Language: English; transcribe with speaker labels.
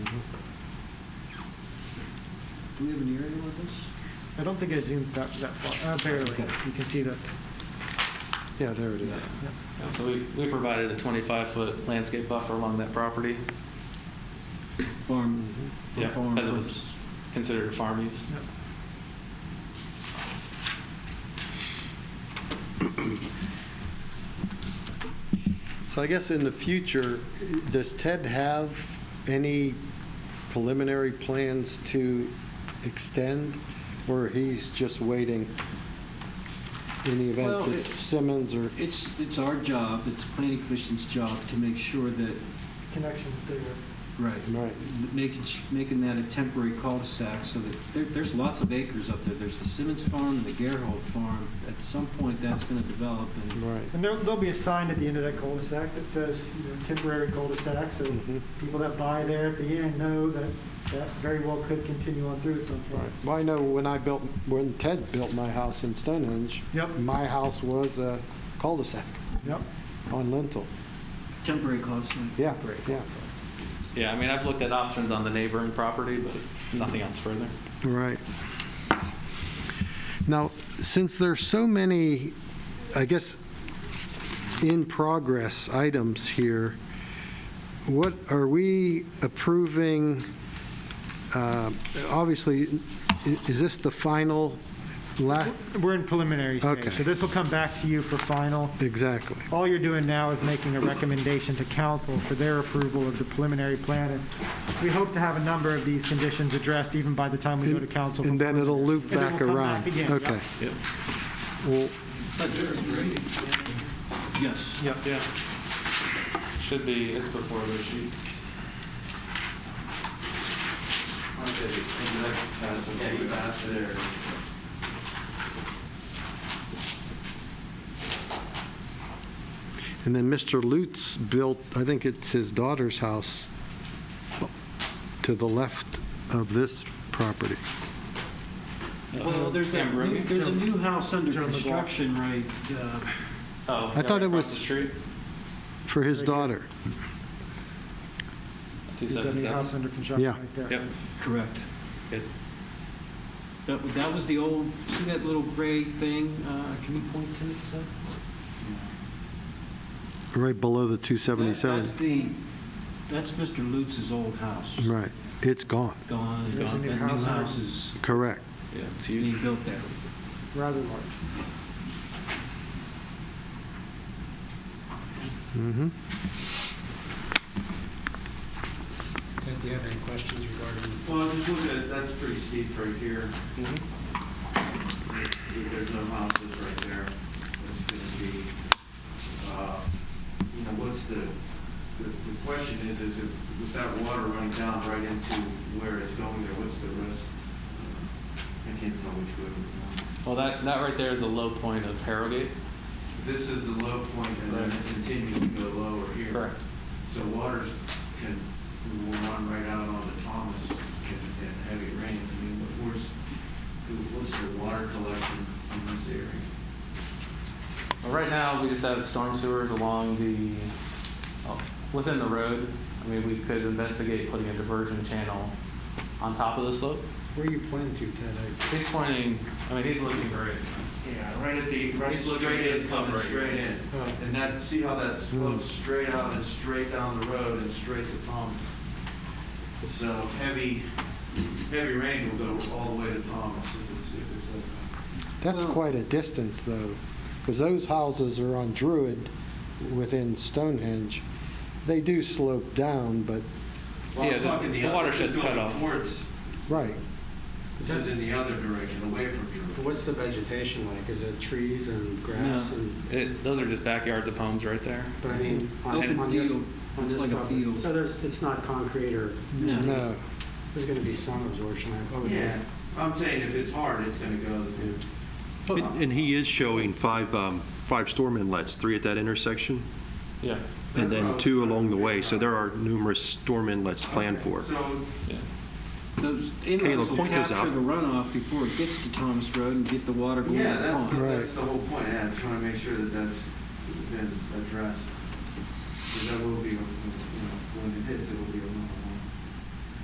Speaker 1: Mm-hmm. Do we have an aerial of this?
Speaker 2: I don't think I zoomed that, that far. Uh, barely. You can see that.
Speaker 3: Yeah, there it is.
Speaker 2: Yeah.
Speaker 4: Yeah, So we, we provided a 25-foot landscape buffer along that property,
Speaker 1: Farm,
Speaker 3: Mm-hmm.
Speaker 1: for
Speaker 4: Yeah,
Speaker 1: farm
Speaker 4: as it was-
Speaker 1: purposes.
Speaker 4: considered farm use.
Speaker 2: Yeah.
Speaker 3: So I guess in the future, does Ted have any preliminary plans to extend? Or he's just waiting in the
Speaker 1: Well,
Speaker 3: event that
Speaker 1: it-
Speaker 3: Simmons or,
Speaker 1: It's, it's our job, it's planning commission's job to make sure that,
Speaker 2: Connections there.
Speaker 1: right,
Speaker 3: right,
Speaker 1: making, making that a temporary cul-de-sac so that, there, there's lots of acres up there. There's the Simmons Farm and the Gerhold Farm. At some point, that's going to develop and
Speaker 3: right.
Speaker 2: And there'll, there'll be a sign at the end of that cul-de-sac that says, you know, temporary cul-de-sac, so
Speaker 3: Mhm.
Speaker 2: people that buy there at the end know that that very well could continue on through at some point.
Speaker 3: Right. Well, I know when I built, when Ted built my house in Stonehenge,
Speaker 2: Yep.
Speaker 3: my house was a cul-de-sac
Speaker 2: Yep.
Speaker 3: on Lentil.
Speaker 1: temporary cul-de-sac.
Speaker 3: Yeah, yeah.
Speaker 4: Yeah, I mean, I've looked at options on the neighboring property, but nothing else further.
Speaker 3: Right. Now, since there's so many, I guess, in-progress items here, what, are we approving, uh, obviously, i- is this the final, la-
Speaker 2: We're in preliminary
Speaker 3: Okay.
Speaker 2: stage, so this will come back to you for final.
Speaker 3: exactly?
Speaker 2: All you're doing now is making a recommendation to council for their approval of the preliminary plan. and We hope to have a number of these conditions addressed even by the time we go to council.
Speaker 3: And then it'll loop
Speaker 2: And then
Speaker 3: back
Speaker 2: we'll come
Speaker 3: around?
Speaker 2: back again, yep.
Speaker 3: Okay.
Speaker 4: Yep.
Speaker 3: Well,
Speaker 1: Yes.
Speaker 4: Yep. Yeah. Should be, it's before the sheet.
Speaker 3: And then Mr. Lutz built, I think it's his daughter's house to the left of this property.
Speaker 1: Well, there's that,
Speaker 4: Amber,
Speaker 1: new- there's a new house under
Speaker 2: Joe McGuire.
Speaker 1: construction, right? uh,
Speaker 4: Oh,
Speaker 3: I
Speaker 4: yeah,
Speaker 3: thought
Speaker 4: right
Speaker 3: it
Speaker 4: across
Speaker 3: was-
Speaker 4: the street,
Speaker 3: For his
Speaker 2: Right here.
Speaker 3: daughter.
Speaker 2: Is that new
Speaker 4: 277.
Speaker 2: house under construction
Speaker 3: Yeah.
Speaker 2: right there?
Speaker 4: Yep.
Speaker 1: Correct.
Speaker 4: Good.
Speaker 1: That, that was the old, see that little gray thing? Uh, Can you point to it? sir?
Speaker 3: Right below the
Speaker 1: That-
Speaker 3: 277.
Speaker 1: That's the, that's Mr. Lutz's old house.
Speaker 3: Right. It's gone.
Speaker 1: Gone.
Speaker 2: There's a
Speaker 1: That
Speaker 2: new
Speaker 1: new
Speaker 2: house on it.
Speaker 1: house is
Speaker 3: Correct.
Speaker 4: Yeah, it's
Speaker 1: being
Speaker 4: huge.
Speaker 1: built there.
Speaker 2: Rather large.
Speaker 3: hmm
Speaker 5: Ted, do you have any questions regarding?
Speaker 6: Well, I'm just looking at, that's pretty steep right here.
Speaker 4: Mhm.
Speaker 1: Mm-hmm.
Speaker 6: There's no houses right there. It's gonna be, uh, you know, what's the, the, the question is, is if, with that water running down right into where it's going there, what's the risk? I can't tell which way. we're going.
Speaker 4: Well, that, that right there is the low point of Harrogate.
Speaker 6: This is the low point and then it's continuing to go lower here. So waters can, will run right out onto Thomas in, in heavy rains. I mean, what- where's, what's the water collection in this area?
Speaker 4: Well, right now, we just have storm sewers along the, oh, within the road. I mean, we could investigate putting a diversion channel on top of the slope.
Speaker 5: Where you plan to, Ted? I-
Speaker 4: He's pointing, I mean, he's looking great.
Speaker 6: Yeah, right at the, right
Speaker 4: He's looking
Speaker 6: straight
Speaker 4: at
Speaker 6: in,
Speaker 4: this
Speaker 6: coming
Speaker 4: number.
Speaker 6: straight in.
Speaker 5: Oh.
Speaker 6: And that, see how that slopes
Speaker 4: Hmm.
Speaker 6: straight out and straight down the road and straight to Thomas? So heavy, heavy rain will go all the way to Thomas if it's, if it's like that.
Speaker 3: That's
Speaker 1: Well-
Speaker 3: quite a distance, though, because those houses are on Druid within Stonehenge. They do slope down, but,
Speaker 6: Well, I'm
Speaker 4: Yeah, the-
Speaker 6: talking
Speaker 4: the
Speaker 6: other-
Speaker 4: watershed's
Speaker 6: going
Speaker 4: cut off.
Speaker 6: Towards,
Speaker 3: right.
Speaker 6: this is in the other direction, away from Drew.
Speaker 5: What's the vegetation like? Is it trees and grass
Speaker 1: No.
Speaker 5: and,
Speaker 4: It, those are just backyards of homes right there.
Speaker 5: but I mean,
Speaker 6: uh,
Speaker 5: on
Speaker 1: Open
Speaker 5: on this,
Speaker 1: field,
Speaker 5: on
Speaker 1: looks
Speaker 5: this
Speaker 1: like a
Speaker 5: property?
Speaker 1: field.
Speaker 5: So there's, it's not concrete or,
Speaker 3: No.
Speaker 5: there's going to be some absorption, I would
Speaker 6: Yeah,
Speaker 5: think.
Speaker 6: I'm saying if it's hard, it's gonna go to.
Speaker 7: And and he is showing five, um, five storm inlets, three at that intersection,
Speaker 4: Yeah.
Speaker 7: and then two along the way, so there are numerous storm inlets planned for.
Speaker 6: So,
Speaker 4: Yeah.
Speaker 1: Those inlets
Speaker 7: Caleb,
Speaker 1: will
Speaker 7: point those
Speaker 1: capture
Speaker 7: out.
Speaker 1: the runoff before it gets to Thomas Road and get the water going
Speaker 6: yeah,
Speaker 1: to the
Speaker 6: that's, the-
Speaker 1: pond.
Speaker 3: Right.
Speaker 6: that's the whole point, yeah, I just wanna make sure that that's been addressed. Because that will be, you know, when it hits, it will be a